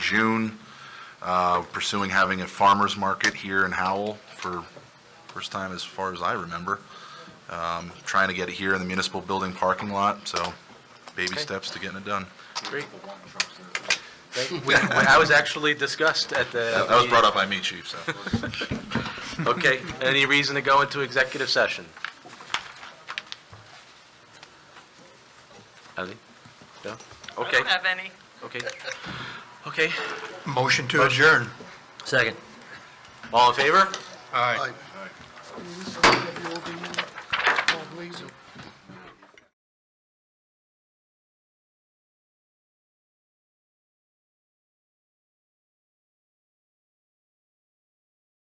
June, uh, pursuing having a farmer's market here in Howell for first time as far as I remember. Um, Trying to get it here in the municipal building parking lot, so baby Okay. steps to getting it done. Great. Thank- we- we- I was actually discussed at the... That that was brought up by me, chief, so. Okay, any reason to go into executive session? Ellie? No? I Okay, don't have any. okay. Okay, Motion to adjourn. second. All in favor? Aye.